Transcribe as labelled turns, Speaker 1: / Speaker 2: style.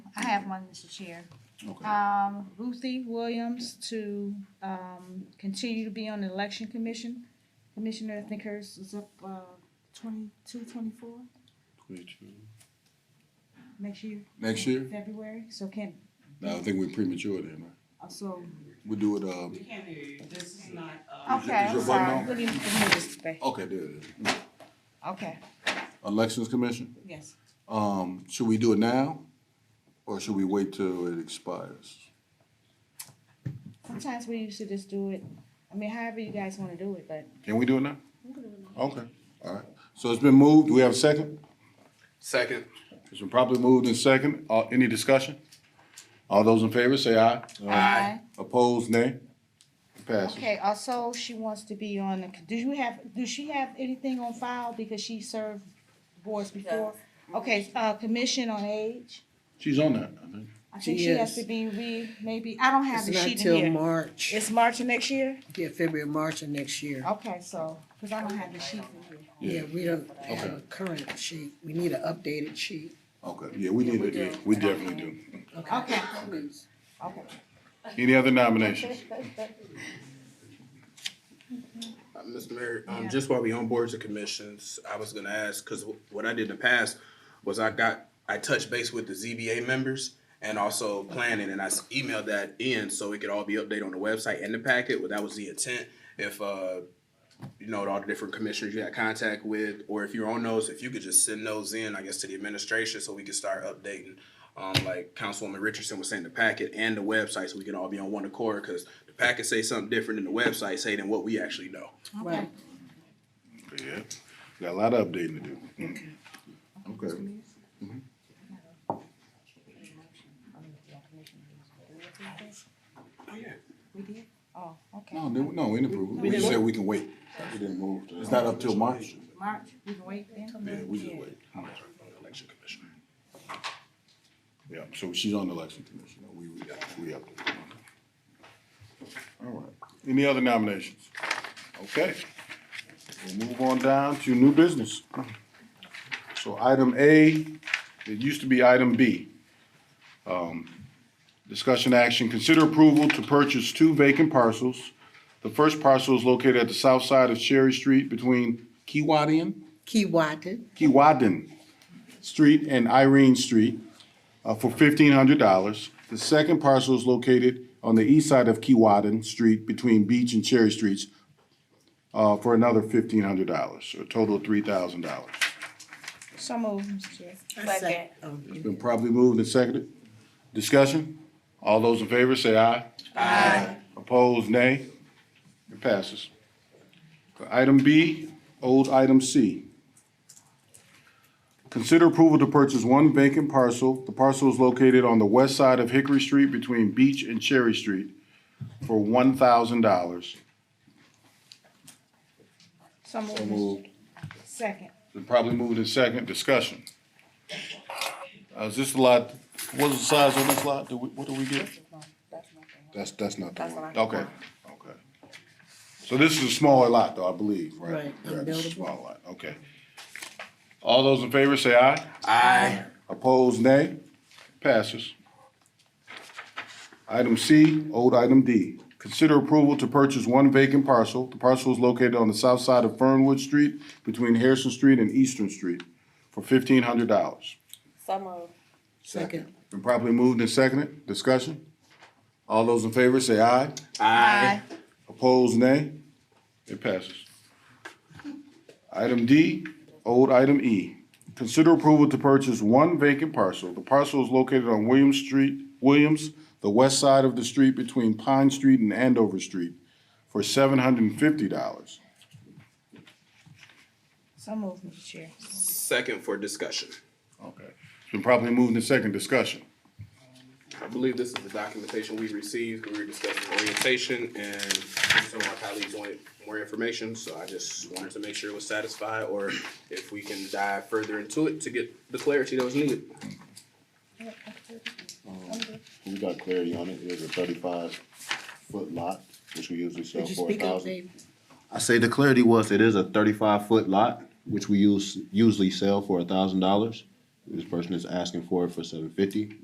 Speaker 1: have one, Mr. Chair.
Speaker 2: Okay,
Speaker 1: Um, Ruthie Williams to, um, continue to be on the election commission. Commissioner, I think hers is up, uh, twenty-two, twenty-four
Speaker 2: twenty-two.
Speaker 1: next year,
Speaker 2: Next year?
Speaker 1: February, so can,
Speaker 2: No, I think we're premature then, right?
Speaker 1: uh, so.
Speaker 2: We do it, um,
Speaker 3: We can't hear you, this is not, uh.
Speaker 1: Okay, I'm
Speaker 2: your button
Speaker 1: sorry,
Speaker 2: on?
Speaker 1: we didn't, we didn't this back.
Speaker 2: okay, there it is.
Speaker 1: Okay,
Speaker 2: Elections Commission,
Speaker 1: yes.
Speaker 2: um, should we do it now? Or should we wait till it expires?
Speaker 1: Sometimes we used to just do it, I mean, however you guys wanna do it, but
Speaker 2: Can we do it now? Okay, all right. So it's been moved. Do we have a second?
Speaker 4: Second.
Speaker 2: It's been properly moved and second. Uh, any discussion? All those in favor, say aye.
Speaker 1: Aye.
Speaker 2: Opposed, nay? It Passes.
Speaker 1: Okay, also, she wants to be on, the- do you have, do she have anything on file because she served boards before? Okay, uh, Commission on Age,
Speaker 2: She's on that, I think.
Speaker 1: I think
Speaker 5: She
Speaker 1: she has
Speaker 5: is.
Speaker 1: to be re, maybe, I don't have the
Speaker 5: It's not
Speaker 1: sheet
Speaker 5: till
Speaker 1: in here.
Speaker 5: March,
Speaker 1: It's March of next year?
Speaker 5: yeah, February, March of next year.
Speaker 1: Okay, so, cause I don't have the sheet in here.
Speaker 2: Yeah.
Speaker 5: Yeah, we don't have a current sheet, we need an updated sheet.
Speaker 2: Okay, yeah, we need to, we definitely do.
Speaker 1: Okay, okay.
Speaker 2: Any other nominations?
Speaker 4: Uh, Mr. Mayor, um, just while we on boards and commissions, I was gonna ask, cause wh- what I did in the past was I got, I touched base with the ZBA members and also planning, and I s- emailed that in so it could all be updated on the website and the packet, well, that was the intent. If, uh, you know, all the different commissioners you had contact with, or if you're on those, if you could just send those in, I guess, to the administration so we could start updating. Um, like Councilwoman Richardson was saying, the packet and the website, so we can all be on one accord, cause the packet say something different than the website say than what we actually know.
Speaker 5: Right.
Speaker 2: Yeah, got a lot of updating to do. Okay.
Speaker 1: We did? Oh, okay.
Speaker 2: No, no, no, we didn't approve. it. We just said we can wait. We didn't move. It's not up till March.
Speaker 1: March, we can wait then?
Speaker 2: Yeah, we just wait. Election commission. Yeah, so she's on the election commission. We, we, we up. there. All right. Any other nominations? Okay. We'll move on down to new business. So item A, it used to be item B. Um, Discussion action, consider approval to purchase two vacant parcels. The first parcel is located at the south side of Cherry Street between Kiwanian
Speaker 5: Key Watton,
Speaker 2: Keewatin Street and Irene Street uh, for fifteen hundred dollars. The second parcel is located on the east side of Keewatin Street between Beach and Cherry Streets uh, for another fifteen hundred dollars, a total of three thousand dollars.
Speaker 1: So moved, Mr. Chair.
Speaker 5: Um, second.
Speaker 2: It's been properly moved and seconded. Discussion? All those in favor say aye. Aye. Opposed, nay. It passes. Item B, old item C. Consider approval to purchase one vacant parcel. The parcel is located on the west side of Hickory Street between Beach and Cherry Street for one thousand dollars.
Speaker 1: So moved.
Speaker 2: So
Speaker 1: Mr.
Speaker 2: moved.
Speaker 1: Second.
Speaker 2: Been probably moved in second. Discussion. Uh, is this a lot, what's the size on this lot? Do we, what do we get? That's, that's not the one. Okay, okay. So this is a smaller lot though, I believe, right?
Speaker 5: Right,
Speaker 2: Yeah, this is a
Speaker 5: unbuildable.
Speaker 2: Small lot, okay. All those in favor say aye.
Speaker 4: Aye.
Speaker 2: Opposed, nay. Passes. Item C, old item D. Consider approval to purchase one vacant parcel. The parcel is located on the south side of Fernwood Street between Harrison Street and Eastern Street for fifteen hundred dollars.
Speaker 5: second.
Speaker 2: Been properly moved and seconded. Discussion? All those in favor say aye.
Speaker 4: Aye.
Speaker 2: Opposed, nay. It passes. Item D, old item E. Consider approval to purchase one vacant parcel. The parcel is located on Williams Street, Williams, the west side of the street between Pine Street and Andover Street for seven hundred and fifty dollars.
Speaker 1: So moved, Mr. Chair.
Speaker 4: Second for discussion.
Speaker 2: Okay. It's been properly moved in second discussion.
Speaker 4: I believe this is the documentation we received, we were discussing orientation and some of my colleagues wanted more information, so I just wanted to make sure it was satisfied or if we can dive further into it to get the clarity that was needed.
Speaker 6: We got clarity on it, it was a thirty-five foot lot, which we usually sell
Speaker 5: Did you
Speaker 6: for a
Speaker 5: speak up,
Speaker 6: thousand.
Speaker 5: baby?
Speaker 6: I say the clarity was, it is a thirty-five foot lot, which we use, usually sell for a thousand dollars. This person is asking for it for seven fifty,